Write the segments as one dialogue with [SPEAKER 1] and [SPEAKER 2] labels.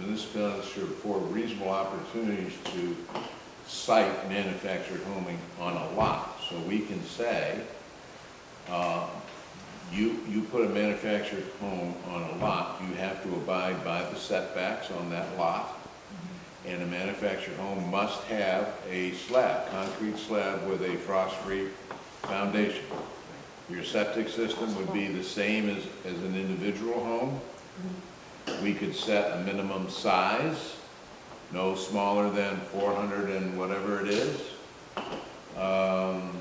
[SPEAKER 1] municipalities should afford reasonable opportunities to site manufactured homing on a lot. So we can say, uh, you, you put a manufactured home on a lot, you have to abide by the setbacks on that lot. And a manufactured home must have a slab, concrete slab with a frost-free foundation. Your septic system would be the same as, as an individual home. We could set a minimum size, no smaller than four hundred and whatever it is. Um,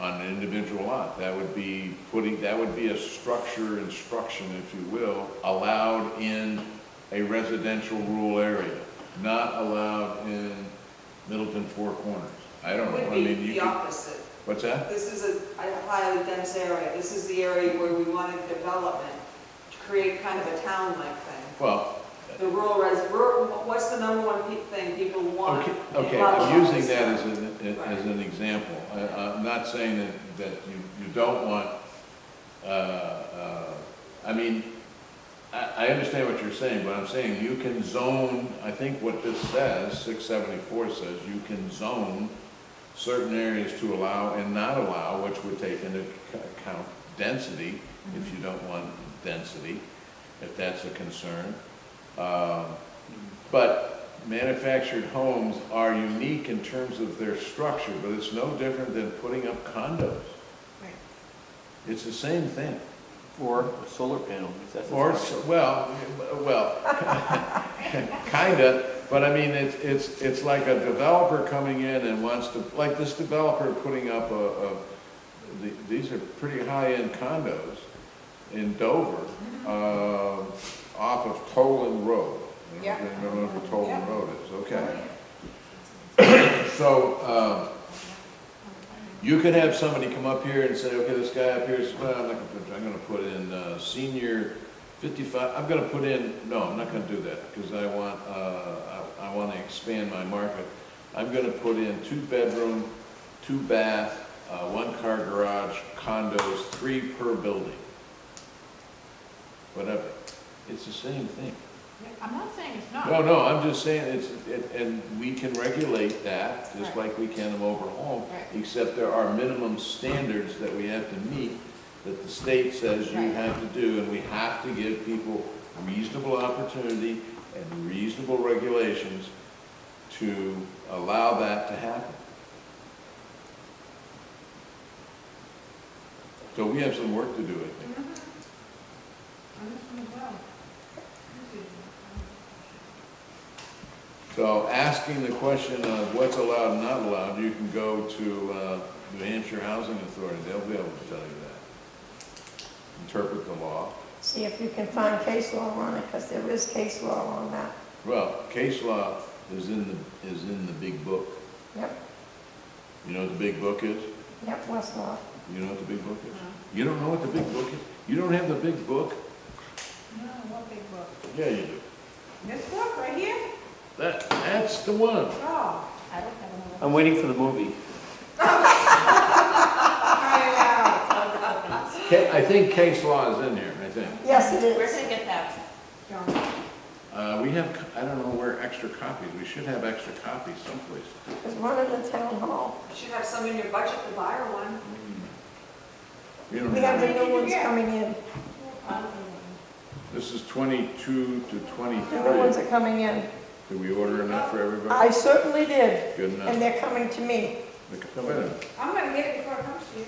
[SPEAKER 1] on an individual lot. That would be putting, that would be a structure instruction, if you will, allowed in a residential rural area, not allowed in Middleton Four Corners. I don't know, I
[SPEAKER 2] Would be
[SPEAKER 1] mean, you
[SPEAKER 2] the
[SPEAKER 1] could,
[SPEAKER 2] opposite.
[SPEAKER 1] what's that?
[SPEAKER 2] This is a a highly dense area. This is the area where we wanted development, to create kind of a town-like thing.
[SPEAKER 1] Well,
[SPEAKER 2] The rural res, rural, what's the number one pe- thing people want?
[SPEAKER 1] okay,
[SPEAKER 2] in
[SPEAKER 1] okay,
[SPEAKER 2] lot
[SPEAKER 1] I'm using
[SPEAKER 2] lines?
[SPEAKER 1] that as an, as an example. I, I'm not saying that, that you, you don't want, uh, uh, I mean, I, I understand what you're saying, but I'm saying you can zone, I think what this says, six seventy-four says, you can zone certain areas to allow and not allow, which would take into c- account density, if you don't want density, if that's a concern. Um, But manufactured homes are unique in terms of their structure, but it's no different than putting up condos.
[SPEAKER 3] Right.
[SPEAKER 1] It's the same thing.
[SPEAKER 4] Or a solar panel, if that's. a
[SPEAKER 1] Or, s-
[SPEAKER 4] structure.
[SPEAKER 1] well, well, kinda, but I mean, it's, it's, it's like a developer coming in and wants to, like this developer putting up a, a, the- these are pretty high-end condos in Dover,
[SPEAKER 3] Mm-hmm.
[SPEAKER 1] uh, off of Toland Road. I
[SPEAKER 3] Yeah.
[SPEAKER 1] don't know if you remember what Toland
[SPEAKER 3] Yeah.
[SPEAKER 1] Road is, okay. So, um, you could have somebody come up here and say, okay, this guy up here is, well, I'm not gonna put, I'm gonna put in, uh, senior fifty-five, I'm gonna put in, no, I'm not gonna do that, because I want, uh, I, I wanna expand my market. I'm gonna put in two-bedroom, two-bath, uh, one-car garage, condos, three per building. Whatever, it's the same thing.
[SPEAKER 3] I'm not saying it's not.
[SPEAKER 1] No, no, I'm just saying, it's, it- and we can regulate that, just
[SPEAKER 3] Right.
[SPEAKER 1] like we can them over home,
[SPEAKER 3] Right.
[SPEAKER 1] except there are minimum standards that we have to meet, that the state says you
[SPEAKER 3] Right.
[SPEAKER 1] have to do, and we have to give people reasonable opportunity and reasonable regulations to allow that to happen. So we have some work to do, I think. So asking the question of what's allowed and not allowed, you can go to uh, New Hampshire Housing Authority, they'll be able to tell you that. Interpret the law.
[SPEAKER 5] See if you can find case law on it, because there is case law on that.
[SPEAKER 1] Well, case law is in the, is in the big book.
[SPEAKER 5] Yep,
[SPEAKER 1] You know what the big book is?
[SPEAKER 5] yep, Westlaw.
[SPEAKER 1] You know what the big book is? You don't know what the big book is? You don't have the big book?
[SPEAKER 3] No, what big book?
[SPEAKER 1] Yeah, you do.
[SPEAKER 3] This book right here?
[SPEAKER 1] That, that's the one.
[SPEAKER 3] Oh. I don't have another.
[SPEAKER 4] I'm waiting for the movie.
[SPEAKER 1] Ca- I think case law is in here, I think.
[SPEAKER 5] Yes, it
[SPEAKER 3] Where
[SPEAKER 5] is.
[SPEAKER 3] can I get that? John?
[SPEAKER 1] Uh, We have, co- I don't know where extra copies, we should have extra copies someplace.
[SPEAKER 5] There's one in the town hall.
[SPEAKER 2] You should have some in your budget to buy or one.
[SPEAKER 1] We don't
[SPEAKER 5] We have the
[SPEAKER 1] have,
[SPEAKER 5] new ones coming in.
[SPEAKER 1] this is twenty-two to
[SPEAKER 5] The new ones
[SPEAKER 1] twenty-three.
[SPEAKER 5] are coming in.
[SPEAKER 1] Did we order enough for everybody?
[SPEAKER 5] I certainly did,
[SPEAKER 1] Good
[SPEAKER 5] and
[SPEAKER 1] enough.
[SPEAKER 5] they're coming to me.
[SPEAKER 1] Look, wait a minute.
[SPEAKER 3] I'm gonna get it before it comes to you.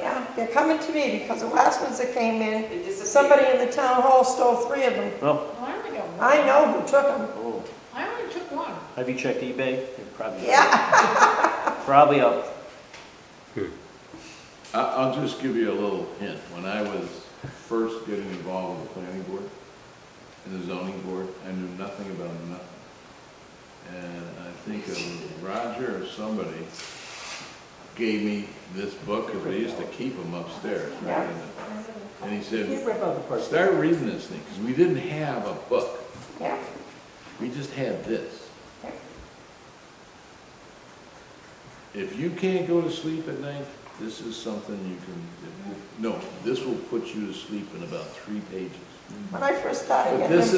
[SPEAKER 5] Yeah, they're coming to me, because the last ones that came in,
[SPEAKER 2] It disappeared.
[SPEAKER 5] somebody in the town hall stole three of them.
[SPEAKER 4] Oh,
[SPEAKER 3] Well, I only got one.
[SPEAKER 5] I know who took them.
[SPEAKER 4] oh,
[SPEAKER 3] I only took one.
[SPEAKER 4] have you checked eBay? They're Probably.
[SPEAKER 5] Yeah,
[SPEAKER 4] Probably up.
[SPEAKER 1] I- I'll just give you a little hint. When I was first getting involved with the planning board and the zoning board, I knew nothing about nothing. And I think it was Roger or somebody gave me this book, because they used to keep them upstairs. right?
[SPEAKER 5] Yeah.
[SPEAKER 1] And he said,
[SPEAKER 4] rip out the parts.
[SPEAKER 1] start reading this thing, because we didn't have a book.
[SPEAKER 5] yeah.
[SPEAKER 1] We just had this.
[SPEAKER 5] Yeah.
[SPEAKER 1] If you can't go to sleep at night, this is something you can, no, this will put you to sleep in about three pages.
[SPEAKER 5] When I first started
[SPEAKER 1] But
[SPEAKER 5] getting them.
[SPEAKER 1] this